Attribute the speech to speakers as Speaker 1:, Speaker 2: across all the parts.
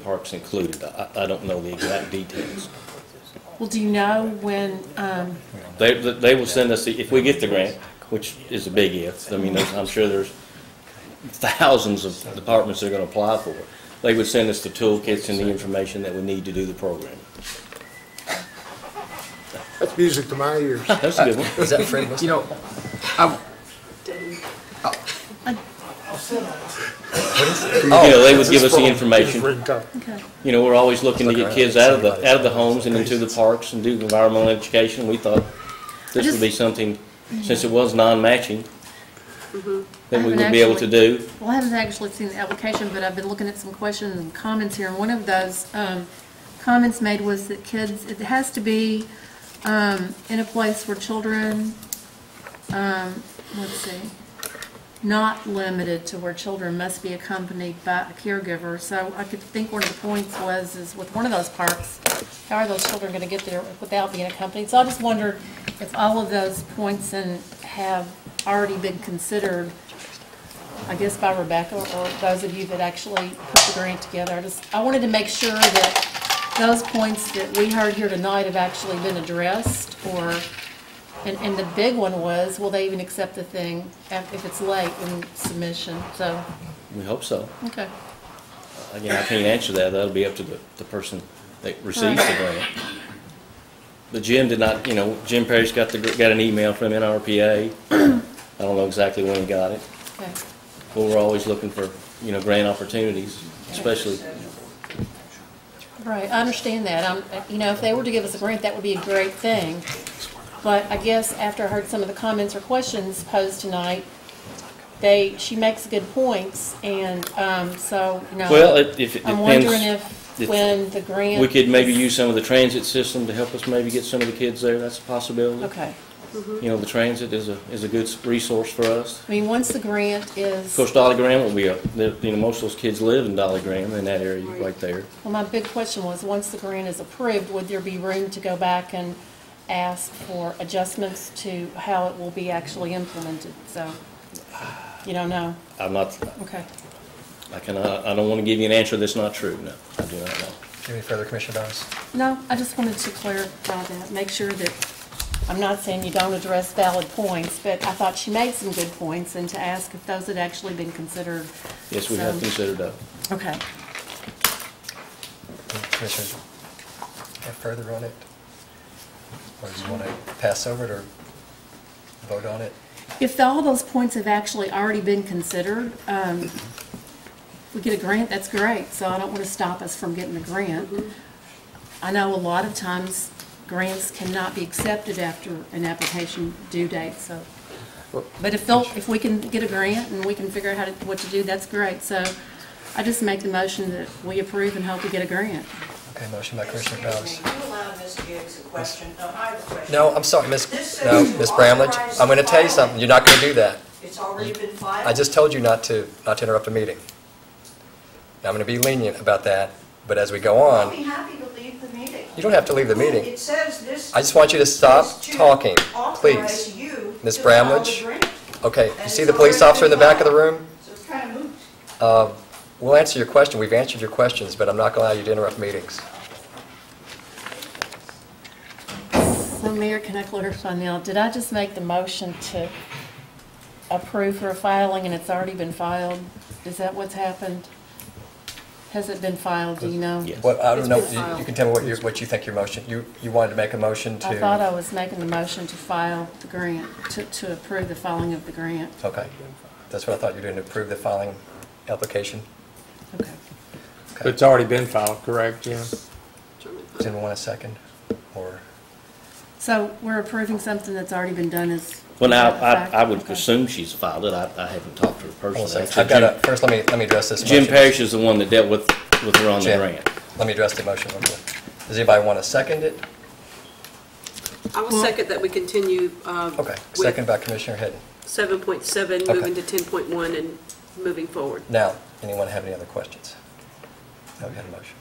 Speaker 1: parks included. I, I don't know the exact details.
Speaker 2: Well, do you know when, um,
Speaker 1: They, they will send us, the if we get the grant, which is a big if, I mean, there's- I'm sure there's thousands of departments that are gonna apply for it. They would send us the toolkits and the information that we need to do the program.
Speaker 3: That's music to my ears.
Speaker 1: That's a good one.
Speaker 4: Is that Fred West?
Speaker 5: You know, I,
Speaker 1: You know, they would give us the information.
Speaker 3: Ringtone.
Speaker 2: okay,
Speaker 1: You know, we're always looking to get kids out of the, out of the homes and into the parks and do environmental education. We thought this would be something, since it was non-matching, that we would be able to do.
Speaker 2: well, I haven't actually seen the application, but I've been looking at some questions and comments here, and one of those, um, comments made was that kids, it has to be, um, in a place where children, um, let's see, not limited to where children must be accompanied by a caregiver. So I could think one of the points was, is with one of those parks, how are those children gonna get there without being accompanied? So I just wondered if all of those points and have already been considered, I guess by Rebecca or those of you that actually put the grant together. I just, I wanted to make sure that those points that we heard here tonight have actually been addressed or and, and the big one was, will they even accept the thing if if it's late in submission? So,
Speaker 1: We hope so.
Speaker 2: okay.
Speaker 1: Again, I can't answer that, that'll be up to the, the person that receives the grant. But Jim did not, you know, Jim Parrish got the, gr- got an email from NRPA, I don't know exactly when he got it,
Speaker 2: okay.
Speaker 1: but we're always looking for, you know, grant opportunities, especially,
Speaker 2: Right, I understand that. Um, you know, if they were to give us a grant, that would be a great thing. But I guess after I heard some of the comments or questions posed tonight, they, she makes good points and, um, so, you know.
Speaker 1: well, it- if it
Speaker 2: I'm wondering
Speaker 1: depends.
Speaker 2: if,
Speaker 1: if
Speaker 2: when the grant.
Speaker 1: We could maybe
Speaker 2: is-
Speaker 1: use some of the transit system to help us maybe get some of the kids there, that's a possibility.
Speaker 2: Okay.
Speaker 1: You know, the transit is a, is a good s- resource for us.
Speaker 2: I mean, once the grant is.
Speaker 1: Of course, Dolly Graham will be, a- the- you know, most of those kids live in Dolly Graham, in that area right there.
Speaker 2: Well, my big question was, once the grant is approved, would there be room to go back and ask for adjustments to how it will be actually implemented? So, you don't know?
Speaker 1: I'm not,
Speaker 2: Okay.
Speaker 1: I cannot, I don't want to give you an answer that's not true, no, I do not know.
Speaker 4: Any further, Commissioner Doss?
Speaker 2: No, I just wanted to clarify that, make sure that, I'm not saying you don't address valid points, but I thought she made some good points, and to ask if those had actually been considered.
Speaker 1: Yes, we have
Speaker 2: So-
Speaker 1: considered that.
Speaker 2: Okay.
Speaker 4: Any Commissioners, have further on it? Or do you want to pass over it or vote on it?
Speaker 2: If all those points have actually already been considered, um, if we get a grant, that's great, so I don't want to stop us from getting the grant. I know a lot of times grants cannot be accepted after an application due date, so. But if they'll, if we can get a grant and we can figure out how to, what to do, that's great, so I just make the motion that we approve and hope we get a grant.
Speaker 4: Okay, motion by Commissioner Doss.
Speaker 6: Excuse me, you allow Ms. Gibbs a question? No, I have a question.
Speaker 4: No, I'm sorry,
Speaker 6: This
Speaker 4: Miss.
Speaker 6: says
Speaker 4: no,
Speaker 6: to
Speaker 4: Miss Bramlage, I'm going to tell you
Speaker 6: authorize
Speaker 4: something, you're not going to do that.
Speaker 6: It's already been filed?
Speaker 4: I just told you not to, not to interrupt a meeting. Now, I'm going to be lenient about that, but as we go
Speaker 6: I'll
Speaker 4: on,
Speaker 6: be happy to leave the meeting.
Speaker 4: you don't have to leave the meeting.
Speaker 6: It says this.
Speaker 4: I just want you to stop
Speaker 6: is to
Speaker 4: talking,
Speaker 6: authorize
Speaker 4: please.
Speaker 6: you
Speaker 4: Ms.
Speaker 6: to file
Speaker 4: Bramlage?
Speaker 6: the grant.
Speaker 4: Okay, you
Speaker 6: And
Speaker 4: see
Speaker 6: it's
Speaker 4: the police
Speaker 6: already
Speaker 4: officer in the back of the room?
Speaker 6: So it's kind of moot.
Speaker 4: Uh, We'll answer your question, we've answered your questions, but I'm not going to allow you to interrupt meetings.
Speaker 2: So Mayor, can I clarify now, did I just make the motion to approve for a filing and it's already been filed? Is that what's happened? Has it been filed, do you know?
Speaker 1: Yes.
Speaker 4: Well, I don't
Speaker 2: It's
Speaker 4: know,
Speaker 2: been
Speaker 4: you- you
Speaker 2: filed.
Speaker 4: can tell me what you, what you think your motion, you, you wanted to make a motion to?
Speaker 2: I thought I was making the motion to file the grant, to, to approve the filing of the grant.
Speaker 4: Okay, that's what I thought you were doing, to approve the filing application.
Speaker 2: Okay.
Speaker 4: Okay.
Speaker 7: It's already been filed, correct, Jim?
Speaker 4: Does anyone want a second? Or,
Speaker 2: So we're approving something that's already been done as.
Speaker 1: Well, now,
Speaker 2: is
Speaker 1: I,
Speaker 2: that a
Speaker 1: I would
Speaker 2: fact? Okay.
Speaker 1: assume she's filed it, I, I haven't talked to her
Speaker 4: hold on a
Speaker 1: personally.
Speaker 4: second. I've got a, first, let me, let me address this motion.
Speaker 1: Jim Parrish is the one that dealt with, with her on the
Speaker 4: Jim,
Speaker 1: grant.
Speaker 4: Let me address the motion real quick. Does anybody want to second it?
Speaker 8: I will second that we continue uh,
Speaker 4: Okay, second
Speaker 8: with
Speaker 4: by Commissioner Hidden.
Speaker 8: 7.7,
Speaker 4: Okay.
Speaker 8: moving to 10.1 and moving forward.
Speaker 4: Now, anyone have any other questions? No, we had a motion.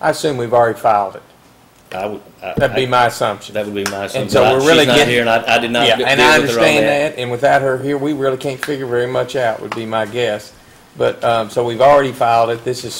Speaker 7: I assume we've already filed it.
Speaker 1: I would, I-
Speaker 7: That'd be my assumption.
Speaker 1: That would be my assumption.
Speaker 7: And so
Speaker 1: but I-
Speaker 7: we're really
Speaker 1: She's not
Speaker 7: getting-
Speaker 1: here, and I, I did not
Speaker 7: Yeah,
Speaker 1: deal with her on
Speaker 7: and I understand that, and without her here, we really can't figure very much out, would be my guess. But, um, so we've already filed it. This is